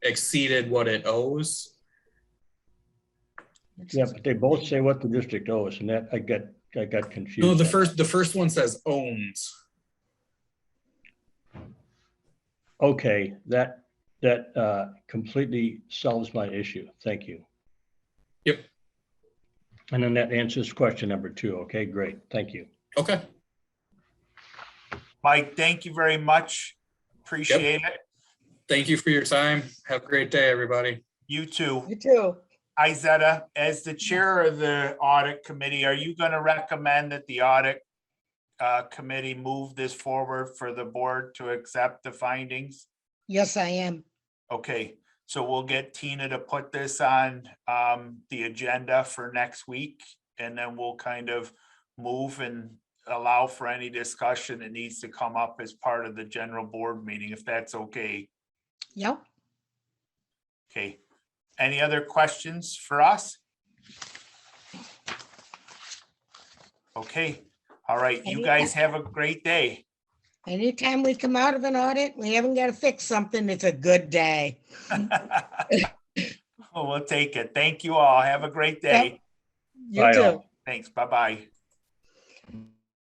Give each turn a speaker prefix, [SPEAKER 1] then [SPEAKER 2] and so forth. [SPEAKER 1] exceeded what it owes.
[SPEAKER 2] Yeah, but they both say what the district owes, and that, I got, I got confused.
[SPEAKER 1] No, the
[SPEAKER 2] on that.
[SPEAKER 1] first, the first one says owns.
[SPEAKER 2] Okay, that, that uh, completely solves my issue. Thank you.
[SPEAKER 1] Yep.
[SPEAKER 2] And then that answers question number two. Okay, great. Thank you.
[SPEAKER 1] Okay,
[SPEAKER 3] Mike, thank you very much. Appreciate it.
[SPEAKER 1] thank you for your time. Have a great day, everybody.
[SPEAKER 3] You too.
[SPEAKER 4] You too.
[SPEAKER 3] Izetta, as the chair of the audit committee, are you going to recommend that the audit uh, committee move this forward for the board to accept the findings?
[SPEAKER 4] Yes, I am.
[SPEAKER 3] Okay, so we'll get Tina to put this on um, the agenda for next week. And then we'll kind of move and allow for any discussion that needs to come up as part of the general board meeting, if that's okay.
[SPEAKER 4] Yep.
[SPEAKER 3] Okay, any other questions for us? Okay, all right, you
[SPEAKER 4] Any-
[SPEAKER 3] guys have a great day.
[SPEAKER 4] Anytime we come out of an audit, we haven't got to fix something. It's a good day.
[SPEAKER 3] Well, We'll take it. Thank you all. Have a great day.
[SPEAKER 4] You
[SPEAKER 2] Bye all.
[SPEAKER 4] too.
[SPEAKER 3] Thanks. Bye-bye.